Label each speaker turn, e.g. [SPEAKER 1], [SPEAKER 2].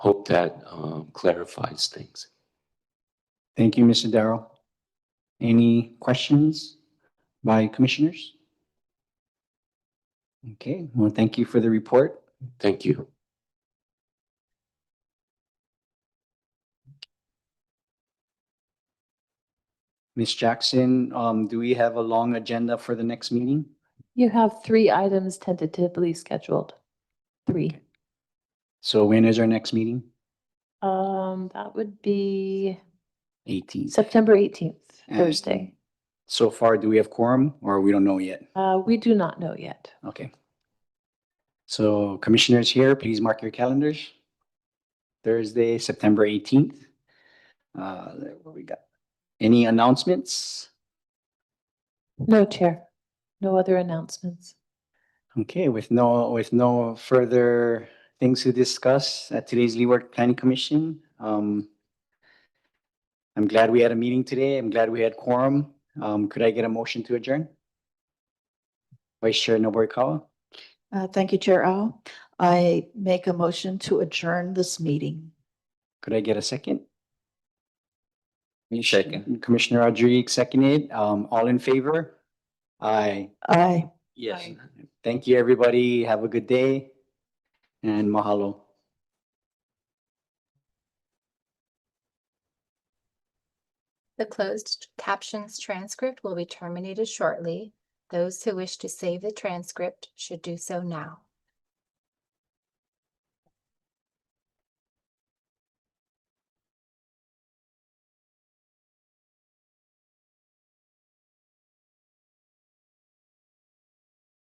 [SPEAKER 1] hope that um, clarifies things.
[SPEAKER 2] Thank you, Mr. Darrow. Any questions by commissioners? Okay, well, thank you for the report.
[SPEAKER 1] Thank you.
[SPEAKER 2] Ms. Jackson, um, do we have a long agenda for the next meeting?
[SPEAKER 3] You have three items tentatively scheduled. Three.
[SPEAKER 2] So when is our next meeting?
[SPEAKER 3] Um, that would be
[SPEAKER 2] Eighteenth.
[SPEAKER 3] September eighteenth,
[SPEAKER 2] And-
[SPEAKER 3] Thursday.
[SPEAKER 2] So far, do we have quorum or we don't know yet?
[SPEAKER 3] Uh, we do not know yet.
[SPEAKER 2] Okay. So commissioners here, please mark your calendars. Thursday, September eighteenth. Uh, what we got? Any announcements?
[SPEAKER 3] No, Chair. No other announcements.
[SPEAKER 2] Okay, with no, with no further things to discuss at today's Leeward Planning Commission. um, I'm glad we had a meeting today. I'm glad we had quorum. Um, could I get a motion to adjourn? Vice Chair Nobukawa,
[SPEAKER 4] Uh, Thank you, Chair Al. I make a motion to adjourn this meeting.
[SPEAKER 2] could I get a second? Second. Commissioner Rodriguez seconded. Um, all in favor? Aye.
[SPEAKER 4] Aye.
[SPEAKER 1] Yes.
[SPEAKER 2] Thank you, everybody. Have a good day. And mahalo.
[SPEAKER 5] The closed captions transcript will be terminated shortly. Those who wish to save the transcript should do so now.